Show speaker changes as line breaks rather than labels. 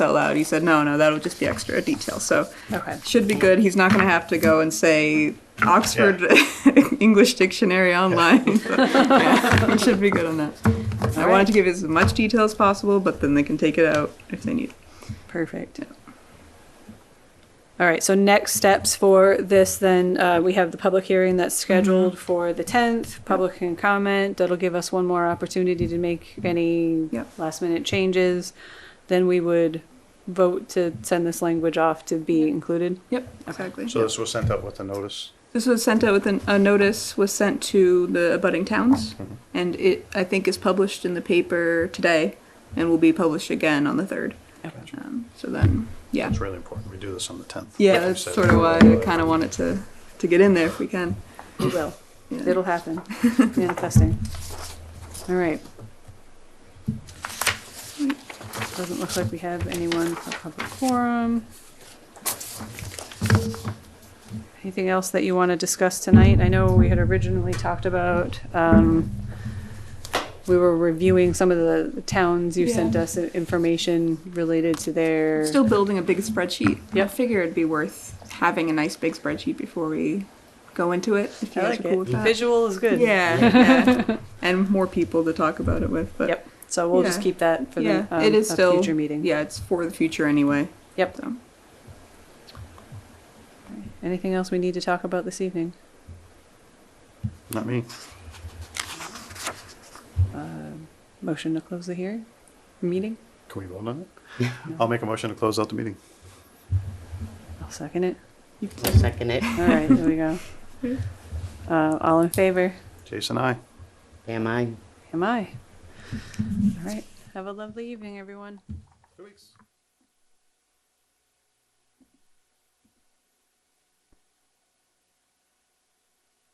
out loud. He said, no, no, that'll just be extra detail. So
Okay.
should be good. He's not going to have to go and say Oxford English Dictionary online. So, yeah, he should be good on that. I wanted to give as much detail as possible, but then they can take it out if they need.
Perfect. All right, so next steps for this, then, uh, we have the public hearing that's scheduled for the tenth, public can comment, that'll give us one more opportunity to make any
Yep.
last minute changes. Then we would vote to send this language off to be included.
Yep, exactly.
So this was sent out with a notice.
This was sent out with an, a notice was sent to the abutting towns,
Mm-hmm.
and it I think is published in the paper today, and will be published again on the third. Um, so then, yeah,
It's really important. We do this on the 10th.
yeah,
Like you
that's
said. uh,
sort of why I kind of wanted to to get in there if we can.
We will.
Yeah.
It'll happen. Manifesting. All right. Doesn't look like we have anyone for public forum. Anything else that you want to discuss tonight? I know we had originally talked about, um, we were reviewing some of the towns you sent
Yeah.
us information related to their.
Still building a big spreadsheet. I
Yep.
figure it'd be worth having a nice big spreadsheet before we go into it. If you
I
guys
like
are cool
it.
with that.
Visual is good.
uh, Yeah, yeah. and more people to talk about it with. But
Yep. So we'll just
Yeah.
keep that for
yeah,
the, um,
it is
a
still
future meeting.
Yeah, it's for the future anyway.
Yep.
So.
Anything else we need to talk about this evening?
Not me.
Motion to close the hearing, meeting?
Can we vote on it? I'll make a motion to close out the meeting.
I'll second it.
I'll second it.
All right, there we go. Uh, all in favor?
Jason, I.
Am I?
Am I? All right. Have a lovely evening, everyone.
Two weeks.